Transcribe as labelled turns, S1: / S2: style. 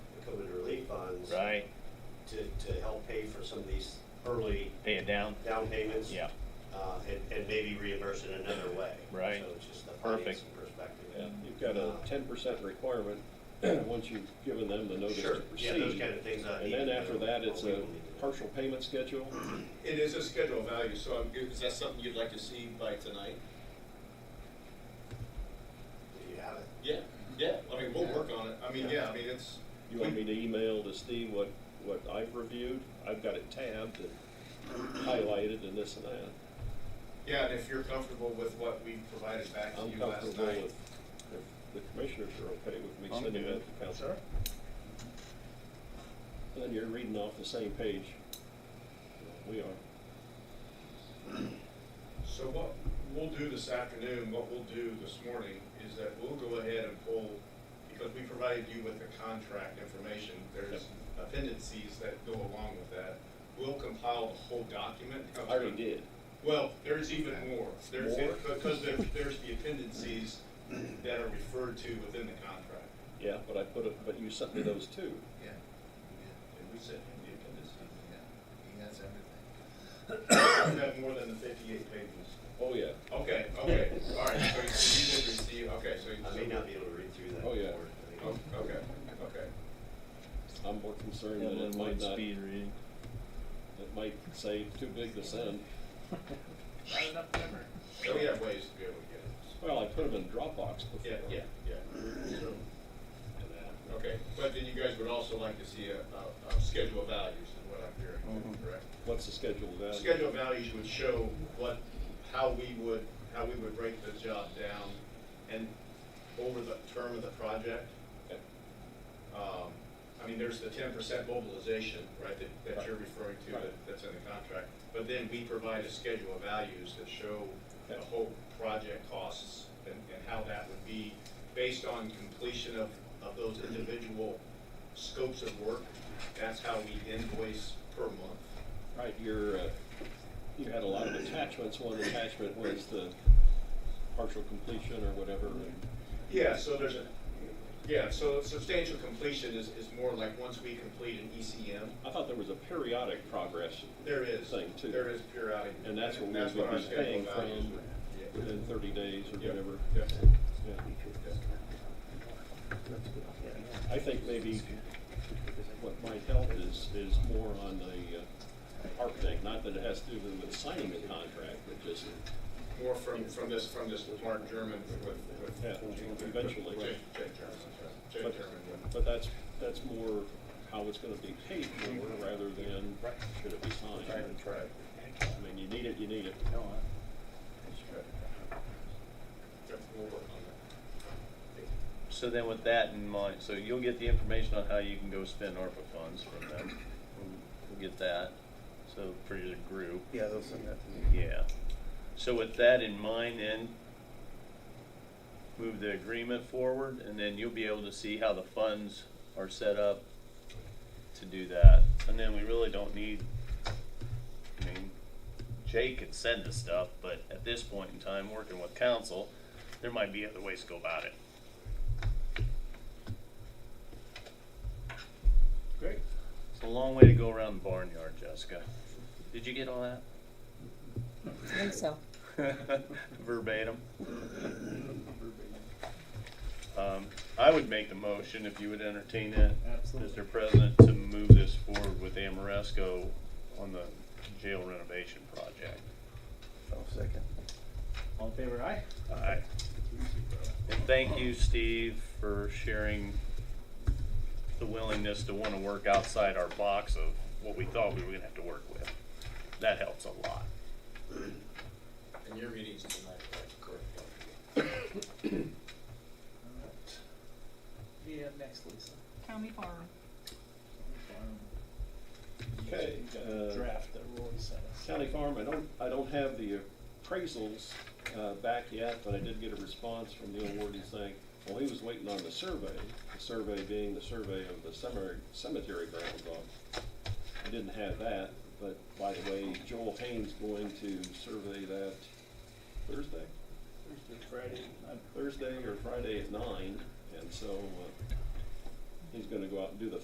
S1: to, to help pay for some of these early
S2: pay it down.
S1: down payments.
S2: Yeah.
S1: Uh, and, and maybe reimburse it another way.
S2: Right.
S1: So it's just the
S2: Perfect.
S1: financing perspective.
S3: Yeah, you've got a ten percent requirement, once you've given them the notice
S1: Sure.
S3: to
S1: Yeah, those
S3: proceed.
S1: kind of things I
S3: And
S1: need.
S3: then
S1: to
S3: after
S1: know
S3: that,
S1: what
S3: it's
S1: we
S3: a
S1: will need to do.
S3: partial payment schedule.
S4: It is a schedule value, so I'm, is that something you'd like to see by tonight?
S1: Do you have it?
S4: Yeah, yeah, I mean, we'll work on it, I mean, yeah, I mean, it's.
S3: You want me to email to Steve what, what I've reviewed? I've got it tabbed and highlighted and this and that.
S4: Yeah, and if you're comfortable with what we provided back to
S3: I'm
S4: you last
S3: comfortable
S4: night.
S3: with, if the commissioners are okay with me
S2: I'm
S3: sending
S2: good.
S3: that to council. Then you're reading off the same page. We are.
S4: So what we'll do this afternoon, what we'll do this morning, is that we'll go ahead and pull, because we provided you with the contract information, there's appendices that go along with that. We'll compile the whole document.
S3: I already did.
S4: Well, there's even more. There's,
S3: More?
S4: because there, there's the appendices that are referred to within the contract.
S3: Yeah, but I put it, but you sent me those too.
S5: Yeah,
S4: And we sent him the appendices.
S5: yeah, he has everything.
S4: You have more than the fifty-eight pages.
S3: Oh, yeah.
S4: Okay, okay, all right, so you did receive, okay, so. you-
S1: I may not be able to read through that.
S3: Oh, yeah.
S1: report. I think-
S4: Oh, Okay, okay.
S3: I'm more concerned that
S2: Dublin
S3: it might
S2: Wood
S3: not,
S2: speed
S3: it
S2: reading.
S3: might say too big to send.
S5: Not enough memory.
S4: So we have ways to be able to get it.
S3: Well, I put them in Dropbox before.
S4: Yeah, yeah, yeah. So,
S3: And that.
S4: Okay, but then you guys would also like to see a, a, a schedule of values is what I'm hearing, correct?
S3: What's the schedule of that?
S4: Schedule of values would show what, how we would, how we would break the job down and over the term of the project.
S3: Okay.
S4: Um, I mean, there's the ten percent mobilization, right, that, that you're referring to,
S3: Right.
S4: that, that's in the contract. But then we provide a schedule of values that show the
S3: Okay.
S4: whole project costs and, and how that would be based on completion of, of those individual scopes of work. That's how we invoice per month.
S3: Right, you're, uh, you had a lot of attachments. One attachment was the partial completion or whatever. and-
S4: Yeah, so there's a, yeah, so substantial completion is, is more like once we complete an ECM,
S3: I thought there was a periodic progress
S4: there is.
S3: Thing, too.
S4: There is periodic.
S3: And that's what we
S4: That's
S3: would
S4: our
S3: be paying
S4: schedule values
S3: from.
S4: would- yeah.
S3: within thirty days or
S4: Yeah,
S3: whatever.
S4: yeah.
S3: Yeah. I think maybe what might help is, is more on the uh, architect, not that it has to do with signing the contract, but just,
S4: More from, from this, from this Mark German with, with.
S3: yeah, eventually.
S4: Jake, Jake German, that's right.
S3: But-
S4: Jake German. yeah.
S3: But that's, that's more how it's gonna be paid for rather than should it be signed. I mean, you need it, you need it.
S4: Yeah, We'll work on
S2: So then with that in mind, so you'll get the information on how you can go spend ARPA funds from them. We'll- We'll get that, so for your group.
S6: Yeah, they'll send that to me.
S2: Yeah. So with that in mind, then, move the agreement forward, and then you'll be able to see how the funds are set up to do that. And then we really don't need, I mean, Jay could send the stuff, but at this point in time, working with council, there might be other ways to go about it.
S4: Great.
S2: It's a long way to go around the barnyard, Jessica. Did you get all that?
S7: I think so.
S2: Verbatim. Um, I would make the motion if you would entertain it,
S6: Absolutely.
S2: Mr. President, to move this forward with Amoresco on the jail renovation project.
S6: I'll second.
S5: All in favor, aye?
S2: Aye. And thank you, Steve, for sharing the willingness to wanna work outside our box of what we thought we were gonna have to work with. That helps a lot.
S4: that. And your meeting's tonight, right? Correct.
S5: Alright. Be up next, Lisa.
S7: County farm.
S3: Okay, uh,
S5: Draft that Roy sent us.
S3: County Farm, I don't, I don't have the appraisals uh, back yet, but I did get a response from the awardee saying, well, he was waiting on the survey, the survey being the survey of the cemetery, cemetery ground dog. I didn't have that, but by the way, Joel Haynes going to survey that Thursday,
S5: Thursday, Friday, night.
S3: Thursday or Friday at nine, and so uh, he's gonna go out and do the